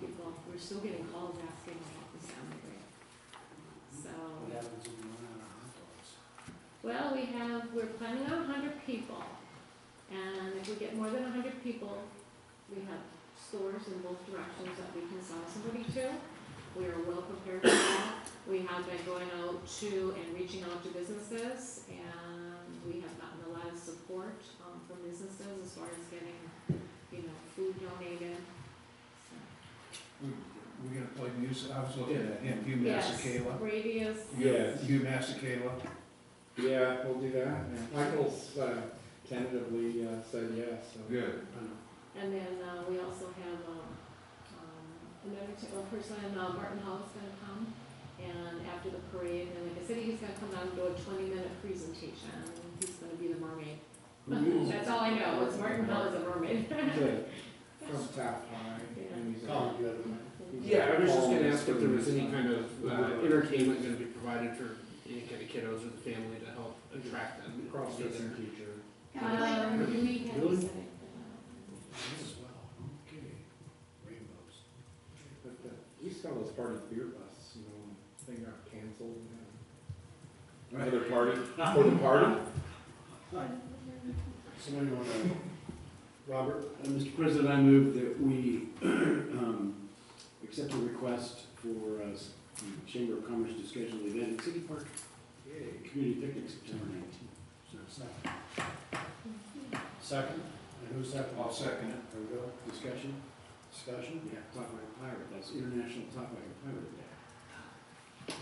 people, we're still getting calls asking about the sound rate. What So, happens when you run out of hot dogs? well, we have, we're planning on hundred people, and if we get more than hundred people, we have stores in both directions that we can sell somebody to. We are well prepared for that. We have been going out to and reaching out to businesses, and we have gotten a lot of support, um, from businesses as far as getting, you know, food donated, so. We- We're gonna play music, I was looking at him, Hugh Masekela. Radius. Yes. Hugh Masekela, Yeah, we'll do that. Michael's uh, tentatively uh, said yes, so. Good. I don't know. And then uh, we also have um, um, another t- a person, uh, Martin Hall is gonna come. And after the parade, and like I said, he's gonna come down and do a twenty-minute presentation. He's gonna be the mermaid. Who is- That's all I know, is Martin Hall is a mermaid. Good. From Top High, and he's all good. Yeah, I was just gonna ask if there was any kind of uh, entertainment gonna be provided for any kind of kiddos or the family to help attract them. Cross-dressing teacher. Um, you may have to Really? say. As well, okay, rainbows. But the East Coast was part of the beer bus, you know, they got canceled. and then- Another party, for the party? Somebody want to, Robert? Mr. Uh, President, I move that we um, accept a request for uh, the Chamber of Commerce to schedule an event at City Park, Yay. a community picnic September 19th. Is there a Second. Second, and who's second? I'll second it. There we go, Discussion? discussion? Yeah, Talk Like a Pirate, that's International Talk Like a Pirate Day.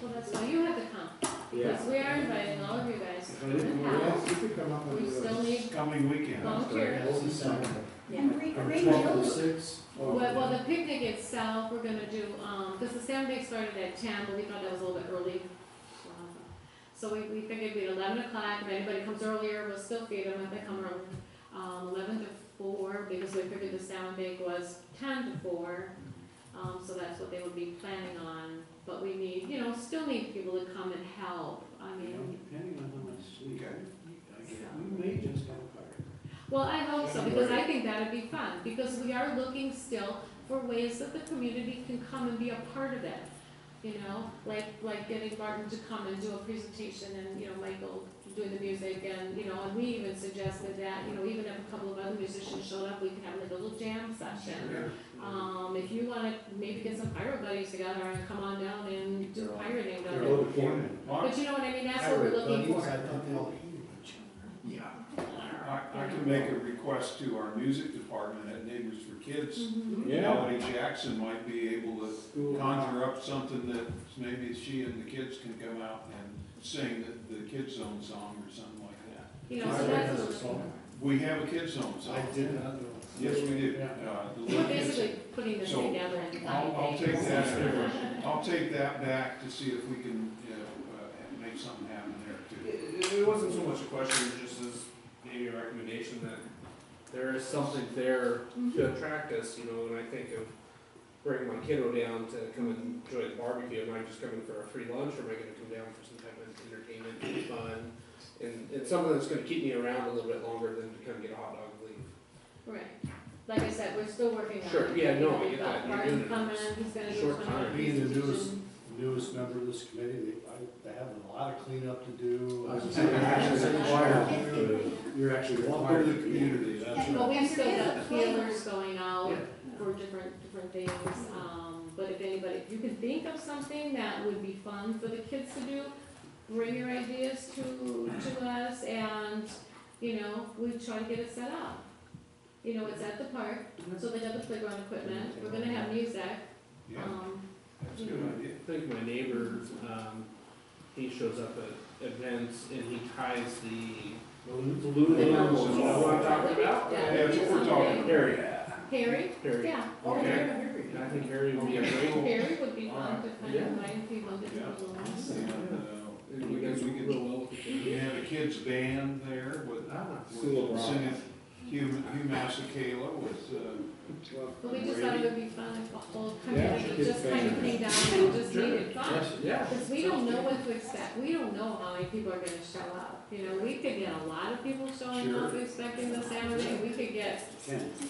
Well, that's why you have to come, because we are inviting all of you guys If to I didn't the know house. Yes, you could come up with. We a- still need coming weekend. volunteers. Hold the second. Yeah. From twelve to six. Well, well, the picnic itself, we're gonna do, um, because the sand bake started at ten, but we thought that was a little bit early. So we, we figured it'd be eleven o'clock, if anybody comes earlier, we'll still feed them, if they come around, um, eleven to four, because we figured the sand bake was ten to four. Um, so that's what they would be planning on, but we need, you know, still need people to come and help, I You know, mean, Depending on how much sleep, Okay. I get, we may just have a fire. Well, I hope so, because I think that'd be fun, because we are looking still for ways that the community can come and be a part of it. You know, like, like getting Martin to come and do a presentation and, you know, Michael doing the music and, you know, and we even suggested that, you know, even if a couple of other musicians showed up, we could have like a little jam session. Um, if you wanna maybe get some pirate buddies together and come on down and do pirating down They're there. all appointed. I, But you know what I mean, that's what we're looking for. I thought they all hated each Yeah. I I can make a request to our music department at Neighbors for Kids. Mhm. Yeah. Melody Jackson might be able to other. conjure up something that maybe she and the kids can come out and sing the, the kids zone song or something like that. You know, so that's what we're looking for. Pirate song. We have a kids zone song. I did not know. Yes, we do. Yeah. Uh, the We're little kids- basically putting this So, together and I'll, I'll finding take things. that, I'll take that back to see if we can, you know, uh, make something happen there too. It, it wasn't so much a question, it just as maybe a recommendation that there is something there to attract us, you know, and I think of bringing my kiddo down to come and enjoy the barbecue, am I just coming for a free lunch, or am I gonna come down for some type of entertainment and fun? And it's something that's gonna keep me around a little bit longer than to come get a hot dog and leave. Right, like I said, we're still working on it. Sure, yeah, no, I We've get got that. You're Martin doing it. coming, he's gonna do Short some time. Being the presentation. newest- Newest member of this committee, they, I- they have a lot of cleanup to do. I was gonna say, actions required. You're actually Welcome required to the community, that's But right. we've still There is got a plan. feelers going out Yeah. for different, different things, um, but if anybody, if you can think of something that would be fun for the kids to do, bring your ideas to, to us and, you know, we try to get it set up. You know, it's at the park, so they got the playground equipment, we're gonna have music, Yeah, um, that's a good idea. I think my neighbor, um, he shows up at events and he ties the balloon The animals, balloons. you know what I'm talking about? Yeah. Yeah, that's what we're talking about. Harry, Harry, Harry, yeah. Oh, Okay. yeah, here we go. I think Harry would be a great one. Harry would be fun to kind of Yeah. invite people to do a little. And, uh, And We you guys can, we can, would real well. with we the- can have a kids band there with, Ah. School of with singing Hugh, Hugh Masekela with, uh, But we just thought it would be fun if the whole Yeah, community it's just kind of fair. came down and just Sure. made it fun. Yes, Yeah. Because we don't know what to expect, we don't know how many people are gonna show up, you know, we could get a lot of people showing up expecting the Saturday, we could get Ten.